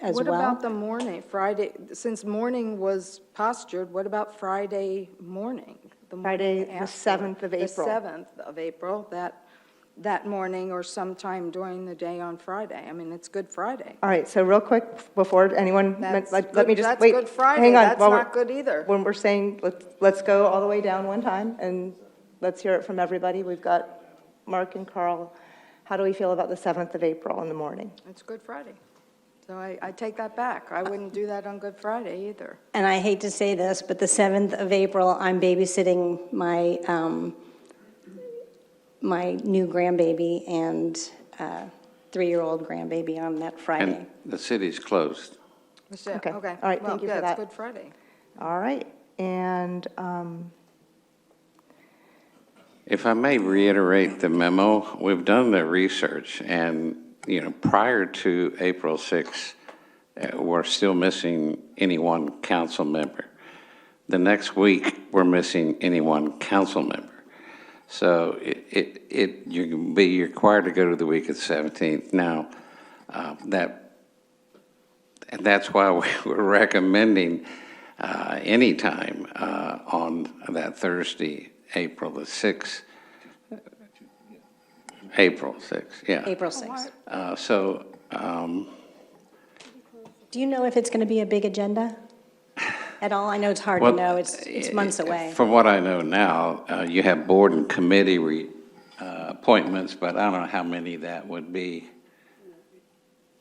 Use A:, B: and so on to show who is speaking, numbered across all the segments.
A: as
B: What
A: well.
B: about the morning, Friday, since morning was postured, what about Friday morning? the morning
A: Friday, the
B: after?
A: 7th of April.
B: The 7th of April, that, that morning or sometime during the day on Friday. I mean, it's Good Friday.
A: All right, so real quick, before anyone,
B: That's
A: let let me
B: good-
A: just,
B: that's
A: wait, hang on.
B: Good Friday. That's
A: while we're-
B: not good either.
A: When we're saying, let's, let's go all the way down one time, and let's hear it from everybody. We've got Mark and Carl. How do we feel about the 7th of April in the morning?
B: It's Good Friday. So I, I take that back. I wouldn't do that on Good Friday either.
C: And I hate to say this, but the 7th of April, I'm babysitting my, um, my new grandbaby and uh, three-year-old grandbaby on that Friday.
D: And the city's closed.
B: Michelle,
A: Okay.
B: okay.
A: All right,
B: Well,
A: thank you for
B: yeah, it's
A: that.
B: Good Friday.
A: All right, and, um,
D: If I may reiterate the memo, we've done the research, and, you know, prior to April 6th, uh, we're still missing any one council member. The next week, we're missing any one council member. So it- it, it, you can be required to go to the week of the 17th. Now, uh, that And that's why we we're recommending uh, any time uh, on that Thursday, April the 6th. April 6th, yeah.
C: April 6th.
D: Uh, So, um,
C: Do you know if it's going to be a big agenda at all? I know it's hard to
D: well...
C: know, it's, it's months away.
D: eh, From what I know now, uh, you have board and committee re- uh, appointments, but I don't know how many that would be.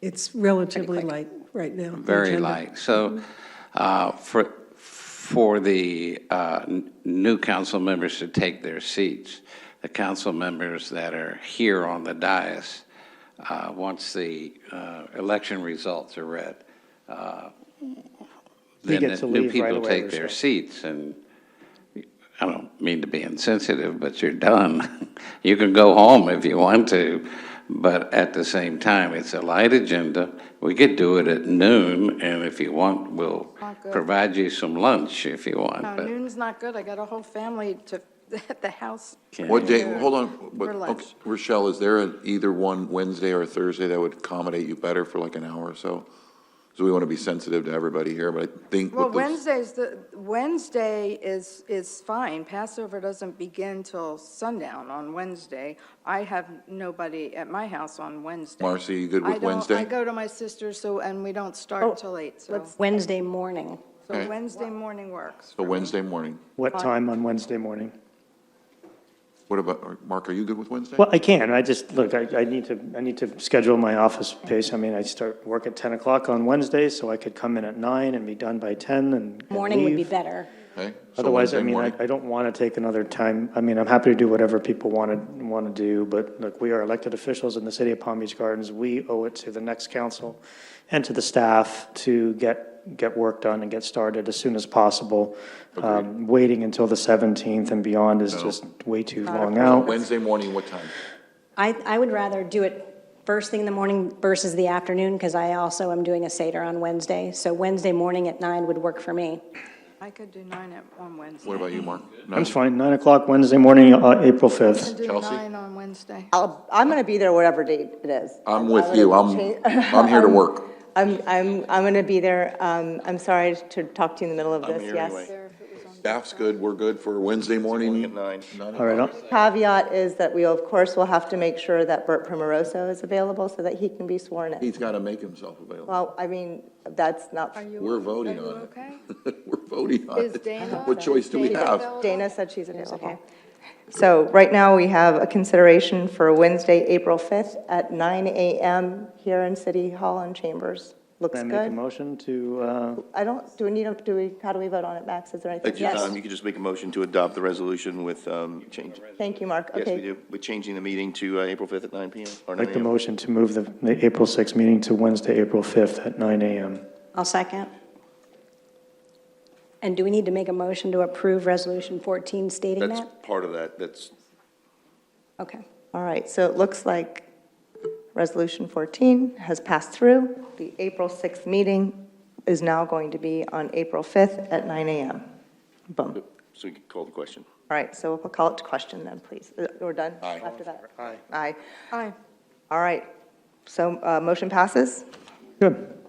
E: It's relatively light right now. the
D: Very
E: agenda.
D: light.
C: Mm-hmm.
D: So uh, for, for the uh, n- new council members to take their seats, the council members that are here on the dais, uh, once the uh, election results are read, uh, then
F: get to
D: the new
F: leave right
D: people
F: away
D: take
F: or
D: their
F: so.
D: seats. And I don't mean to be insensitive, but you're done. You can go home if you want to, but at the same time, it's a light agenda. We could do it at noon, and if you want, we'll
B: Not good.
D: provide you some lunch if you want.
B: No,
D: but-
B: noon's not good. I got a whole family to, at the house.
G: What day,
B: Yeah.
G: hold on, but,
B: For
G: okay,
B: lunch.
G: Rochelle, is there an either one Wednesday or Thursday that would accommodate you better for like an hour or so? So we want to be sensitive to everybody here, but I think
B: Well,
G: with this,
B: Wednesday's, the, Wednesday is, is fine. Passover doesn't begin till sundown on Wednesday. I have nobody at my house on Wednesday.
G: Marcy, you good
B: I
G: with
B: don't- I
G: Wednesday?
B: go to my sister's, so, and we don't start till eight, so,
C: Let's- Wednesday morning.
B: so
G: Okay.
B: Wednesday morning works.
G: So Wednesday morning.
F: What time on Wednesday morning?
G: What about, or, Mark, are you good with Wednesday?
F: Well, I can, I just, look, I, I need to, I need to schedule my office pace. I mean, I start work at 10 o'clock on Wednesday, so I could come in at 9 and be done by 10 and- and
C: Morning would be
F: leave.
C: better.
G: Okay, so
F: Otherwise,
G: Wednesday
F: I mean, I,
G: morning.
F: I don't want to take another time, I mean, I'm happy to do whatever people want to, want to do, but look, we are elected officials in the city of Palm Beach Gardens. We owe it to the next council and to the staff to get, get work done and get started as soon as possible. Um, Waiting until the 17th and beyond is just way too long out.
G: Wednesday morning, what time?
C: I, I would rather do it first thing in the morning versus the afternoon, because I also am doing a Seder on Wednesday. So Wednesday morning at 9 would work for me.
B: I could do nine at, on Wednesday.
G: What about you, Mark?
F: I'm fine, 9 o'clock Wednesday morning, uh, April
B: I
F: 5th.
B: can do
G: Chelsea?
B: nine on Wednesday.
A: I'll, I'm going to be there whatever date it is.
G: I'm with you, I'm, I'm here to work.
A: I'm, I'm, I'm going to be there. Um, I'm sorry to talk to you in the middle of this, yes.
G: Staff's good, we're good for Wednesday morning. Nine
F: All right,
G: o'clock.
F: I'll-
A: Caveat is that we, of course, will have to make sure that Bert Primoroso is available so that he can be sworn in.
G: He's got to make himself available.
A: Well, I mean, that's not,
B: Are you?
G: We're
B: okay?
G: voting
B: Are you
G: on it.
B: okay?
G: We're voting on
B: Is
G: it.
B: Dana-
G: What choice do we
B: Dana
G: have?
B: available?
A: Dana said she's available. So right now, we have a consideration for Wednesday, April 5th at 9 a.m. here in City Hall and Chambers. Looks
F: I make a
A: good.
F: motion to, uh,
A: I don't, do we need, a- do we, how do we vote on it, Max? Is there anything?
H: At your
C: Yes.
H: time, you could just make a motion to adopt the resolution with um, change.
A: Thank you, Mark.
H: Yes, we
A: Okay.
H: do, with changing the meeting to uh, April 5th at 9 PM. or 9
F: make the
H: a.m.
F: motion to move the, the April 6th meeting to Wednesday, April 5th at 9 AM.
C: I'll second. And do we need to make a motion to approve Resolution 14 stating
H: That's
C: that?
H: part of that, that's,
C: Okay.
A: All right, so it looks like Resolution 14 has passed through. The April 6th meeting is now going to be on April 5th at 9 a.m. Boom. All
H: so we can call the question.
A: right, so we'll call it to question then, please. Uh, We're done
G: Aye.
A: after that? Aye. Aye.
B: Aye.
A: All right, so uh, motion passes.
F: Good.